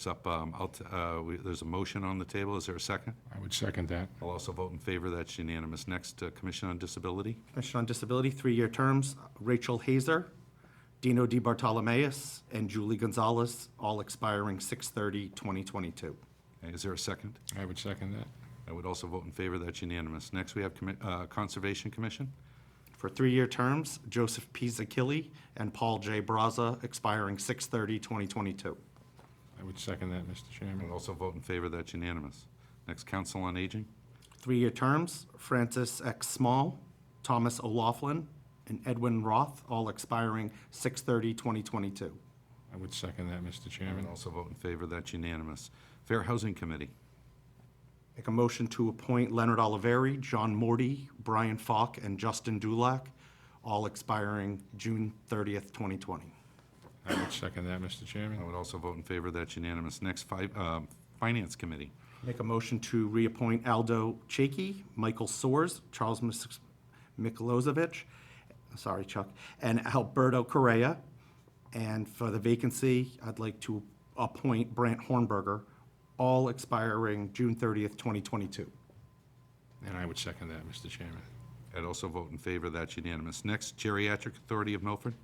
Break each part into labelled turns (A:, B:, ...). A: It's up, um, I'll t- uh, we- there's a motion on the table. Is there a second?
B: I would second that.
A: I'll also vote in favor. That's unanimous. Next, uh, Commission on Disability.
C: Commission on Disability, three-year terms, Rachel Hazer, Dino Di Bartolomeus, and Julie Gonzalez, all expiring 6/30/2022.
A: Is there a second?
B: I would second that.
A: I would also vote in favor. That's unanimous. Next, we have commi- uh, Conservation Commission.
C: For three-year terms, Joseph P. Zakili and Paul J. Braza, expiring 6/30/2022.
B: I would second that,
A: I
B: Mr.
A: would
B: Chairman.
A: also vote in favor. That's unanimous. Next, Council on Aging.
C: Three-year terms, Francis X. Small, Thomas O'Laughlin, and Edwin Roth, all expiring 6/30/2022.
B: I would second that, Mr.
A: I would
B: Chairman.
A: also vote in favor. That's unanimous. Fair Housing Committee.
C: Make a motion to appoint Leonard Oliveri, John Morty, Brian Falk, and Justin Dulac, all expiring June 30th, 2020.
B: I would second that, Mr.
A: I
B: Chairman.
A: would also vote in favor. That's unanimous. Next, fi- um, Finance Committee.
C: Make a motion to reappoint Aldo Chaki, Michael Soers, Charles Mis- Mikulozovic, sorry Chuck, and Alberto Correa. And for the vacancy, I'd like to appoint Brant Hornberger, all expiring June 30th, 2022.
B: And I would second that, Mr. Chairman.
A: I'd also vote in favor. That's unanimous. Next, Geriatric Authority of Milford.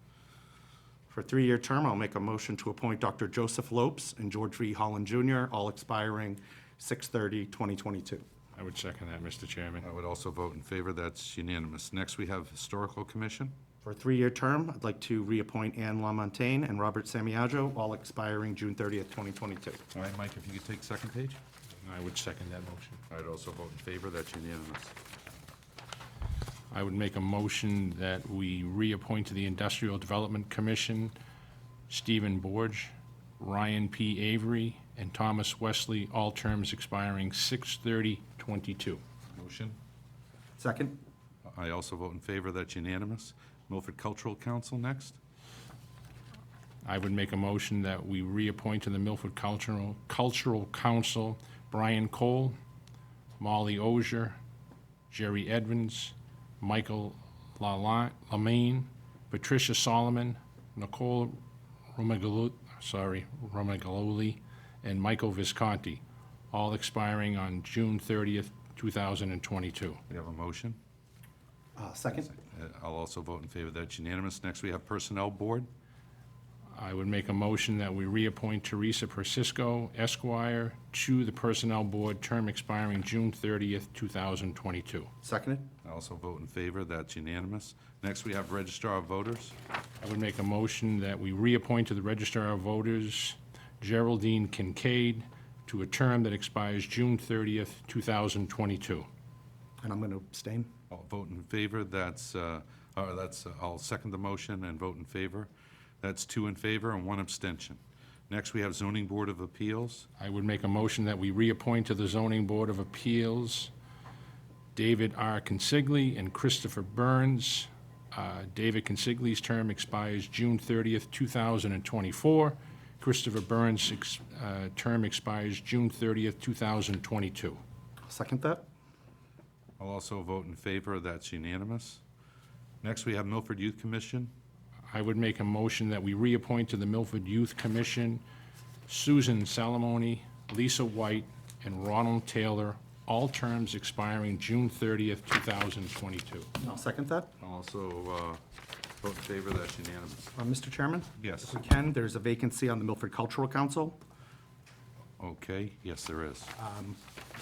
C: For a three-year term, I'll make a motion to appoint Dr. Joseph Lopes and George V. Holland Jr., all expiring 6/30/2022.
B: I would second that, Mr. Chairman.
A: I would also vote in favor. That's unanimous. Next, we have Historical Commission.
C: For a three-year term, I'd like to reappoint Anne Lamontagne and Robert Samiagio, all expiring June 30th, 2022.
A: All right, Mike, if you could take second page.
B: I would second that motion.
A: I'd also vote in favor. That's unanimous.
B: I would make a motion that we reappoint to the Industrial Development Commission Stephen Borge, Ryan P. Avery, and Thomas Wesley, all terms expiring 6/30/22.
A: Motion.
C: Second?
A: I also vote in favor. That's unanimous. Milford Cultural Council next.
B: I would make a motion that we reappoint to the Milford Cultural, Cultural Council Brian Cole, Molly Ozier, Jerry Edmonds, Michael Lala- Lamaine, Patricia Solomon, Nicole Romagolo, sorry, Romagaloli, and Michael Visconti, all expiring on June 30th, 2022.
A: We have a motion.
C: Uh, Second?
A: Uh, I'll also vote in favor. That's unanimous. Next, we have Personnel Board.
B: I would make a motion that we reappoint Teresa Persisco Esquire to the Personnel Board, term expiring June 30th, 2022.
C: Seconded?
A: I also vote in favor. That's unanimous. Next, we have Registrar of Voters.
B: I would make a motion that we reappoint to the Registrar of Voters Geraldine Kincaid to a term that expires June 30th, 2022.
C: And I'm going to abstain.
A: I'll vote in favor. That's, uh, uh, that's, I'll second the motion and vote in favor. That's two in favor and one abstention. Next, we have Zoning Board of Appeals.
B: I would make a motion that we reappoint to the Zoning Board of Appeals David R. Consigli and Christopher Burns. Uh, David Consigli's term expires June 30th, 2024. Christopher Burns' ex- uh, term expires June 30th, 2022.
C: Second that?
A: I'll also vote in favor. That's unanimous. Next, we have Milford Youth Commission.
B: I would make a motion that we reappoint to the Milford Youth Commission Susan Salamone, Lisa White, and Ronald Taylor, all terms expiring June 30th, 2022.
C: I'll second that.
A: I'll also uh, vote in favor. That's unanimous.
C: Uh, Mr. Chairman?
A: Yes.
C: If we can, there's a vacancy on the Milford Cultural Council.
A: Okay, yes, there is.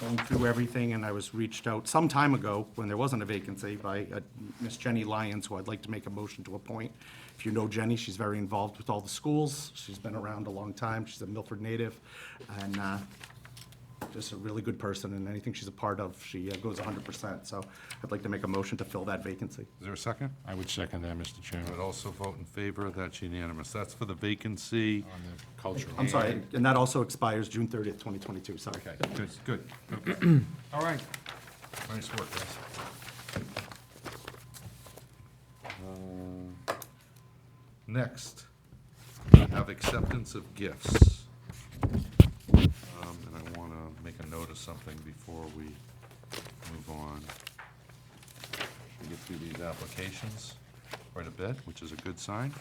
C: going through everything, and I was reached out some time ago, when there wasn't a vacancy, by uh, Miss Jenny Lyons, who I'd like to make a motion to appoint. If you know Jenny, she's very involved with all the schools. She's been around a long time. She's a Milford native, and uh, just a really good person, and anything she's a part of, she uh, goes 100%. So I'd like to make a motion to fill that vacancy.
A: Is there a second?
B: I would second that, Mr.
A: I
B: Chairman.
A: would also vote in favor. That's unanimous. That's for the vacancy.
B: On the cultural.
C: I'm sorry, and that also expires June 30th, 2022, sorry.
A: Okay, good, good. All right. Nice work, guys. Uh, Next, we have acceptance of gifts. Um, And I want to make a note of something before we move on. We get through these applications quite a bit, which is a good sign.